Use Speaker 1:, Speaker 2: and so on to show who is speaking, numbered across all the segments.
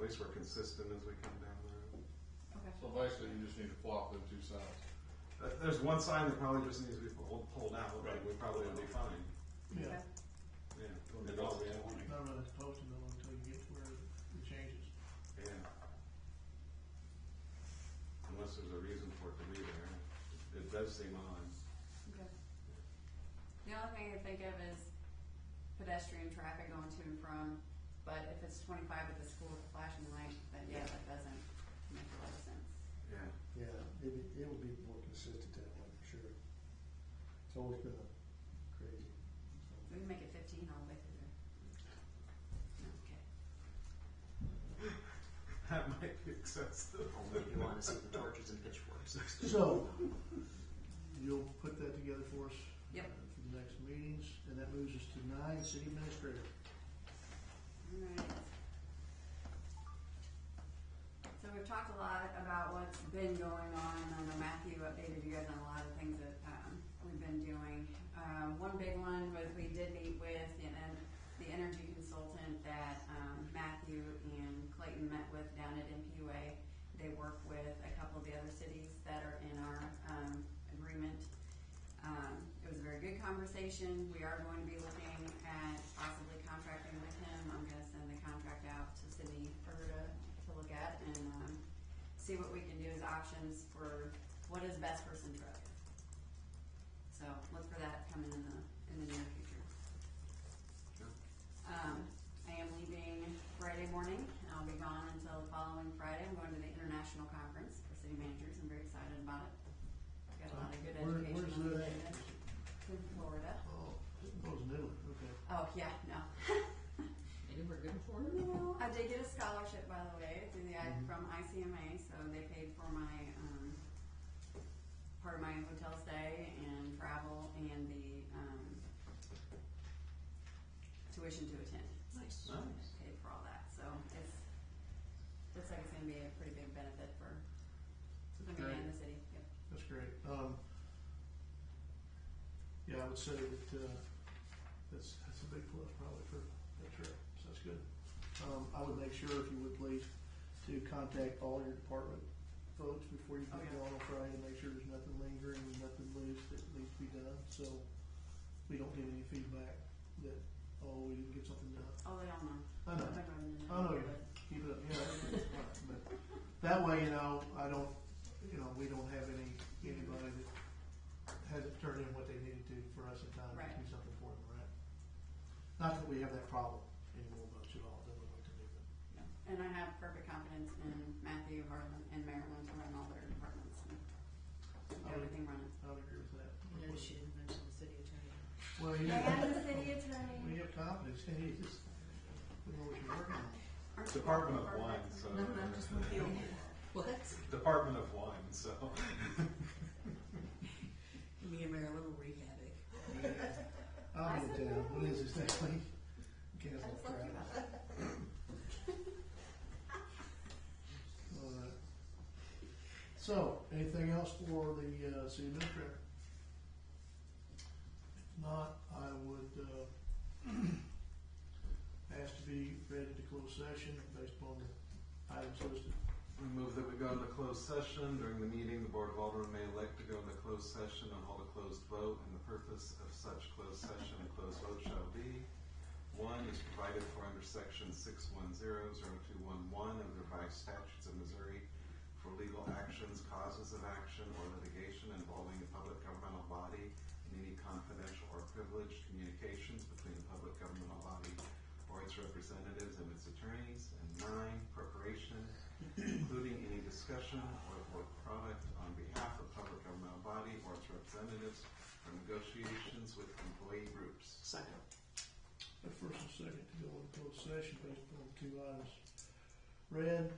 Speaker 1: least we're consistent as we come down the road.
Speaker 2: Okay.
Speaker 3: So basically, you just need to flop them two sides.
Speaker 1: But There's one sign that probably just needs to be pulled, pulled out, but we probably will be fine,
Speaker 4: Yeah,
Speaker 1: yeah.
Speaker 3: Well,
Speaker 1: And all we
Speaker 3: that's
Speaker 1: have-
Speaker 3: one.
Speaker 4: not really supposed to though until you get to where it changes.
Speaker 1: Yeah. Unless there's a reason for it to be there, it does seem odd.
Speaker 2: Okay. The only thing I think of is pedestrian traffic going to and from, but if it's twenty-five at the school with a flashing light, then yeah, that doesn't make a lot of sense.
Speaker 1: Yeah,
Speaker 5: Yeah, it, it will be more consistent that way, for sure. It's always been a crazy.
Speaker 2: We can make it fifteen all the way through there. Okay.
Speaker 1: that might be excessive.
Speaker 6: Only if you want to see the torches and pitchforks.
Speaker 4: So, you'll put that together for us?
Speaker 2: Yep.
Speaker 4: uh, For the next meetings, and that moves us to nine, city administrator.
Speaker 2: Alright. So we've talked a lot about what's been going on, and I know Matthew updated you guys on a lot of things that, um, we've been doing. Um, one big one was we did meet with, the en- the energy consultant that, um, Matthew and Clayton met with down at MPUA. They work with a couple of the other cities that are in our, um, agreement. Um, it was a very good conversation. We are going to be looking at possibly contracting with him. I'm gonna send the contract out to Sydney Erda to look at and, um, see what we can do as options for what is best for Centralia. So look for that coming in the, in the near future. Um, I am leaving Friday morning. and I'll be gone until the following Friday. I'm going to the international conference for city managers. I'm very excited about it. Got a lot of good
Speaker 4: Where-
Speaker 2: education.
Speaker 4: Where's
Speaker 2: on the agenda.
Speaker 4: that?
Speaker 2: In Florida.
Speaker 4: Oh, it was in Italy, okay.
Speaker 2: Oh, yeah, no.
Speaker 6: Maybe we're good for it.
Speaker 2: no, I did get a scholarship, by the way, through the,
Speaker 4: Mm-hmm.
Speaker 2: from ICMA, so they paid for my, um, part of my hotel stay and travel and the, um, tuition to attend.
Speaker 6: Nice.
Speaker 1: Nice.
Speaker 2: Paid for all that, so it's, looks like it's gonna be a pretty big benefit for the community and the city, yep.
Speaker 4: That's great. Um, yeah, I would say that, uh, that's, that's a big plus probably for that trip, so that's good. Um, I would make sure, if you would please, to contact all your department folks before you
Speaker 2: Oh,
Speaker 4: get
Speaker 2: yeah.
Speaker 4: going on Friday, make sure there's nothing lingering, nothing loose that needs to be done, so we don't get any feedback that, oh, we didn't get something done.
Speaker 2: Oh, they all know.
Speaker 4: I know.
Speaker 2: They're going to know.
Speaker 4: Oh, yeah, keep it up, yeah, that's fine, but that way, you know, I don't, you know, we don't have any, anybody that hasn't turned in what they needed to for us in time to
Speaker 2: Right.
Speaker 4: do something for them, right? Not that we have that problem anymore much at all, that we like to do, but
Speaker 2: Yeah. And I have perfect confidence in Matthew, Harlan, and Marilyn to run all their departments and keep everything running.
Speaker 4: I would agree with
Speaker 7: You know,
Speaker 4: that.
Speaker 7: she didn't mention the city attorney.
Speaker 4: Well, you know,
Speaker 2: city
Speaker 4: we
Speaker 2: attorney.
Speaker 4: have confidence, and you just, we know what you're working on.
Speaker 1: Department of Wine, so.
Speaker 7: No, I'm just not feeling it. What?
Speaker 1: Department of Wine, so.
Speaker 7: Me and Marilyn will wreak havoc.
Speaker 4: I'll get down, what is this next week? Cancel crap. All right. So, anything else for the uh, city administrator? If not, I would uh, ask to be ready to close session based upon the items listed.
Speaker 1: We move that we go into closed session. During the meeting, the Board of Aldermen may elect to go into closed session and hold a closed vote, and the purpose of such closed session and closed vote shall be, one is provided for under section six one zero zero two one one of the revised statutes of Missouri for legal actions, causes of action, or litigation involving a public governmental body and any confidential or privileged communications between a public governmental body or its representatives and its attorneys, and nine, preparation, including any discussion or work product on behalf of public governmental body or its representatives or negotiations with employee groups.
Speaker 6: Second.
Speaker 4: The first and second to go into closed session based upon the two items read.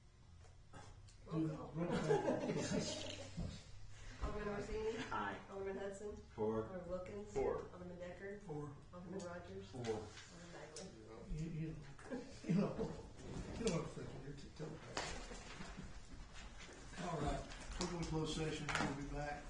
Speaker 4: uh, do- roll call.
Speaker 8: Alderman Orsini?
Speaker 6: Aye.
Speaker 8: Alderman Hudson?
Speaker 1: Four.
Speaker 8: Alderman Wilkins?
Speaker 1: Four.
Speaker 8: Alderman Decker?
Speaker 4: Four.
Speaker 8: Alderman Rogers?
Speaker 1: Four.
Speaker 8: Alderman Magley?
Speaker 4: You, you know, you know, you know what I'm thinking. You're too tough. All right, we're going to close session. We'll be back. um,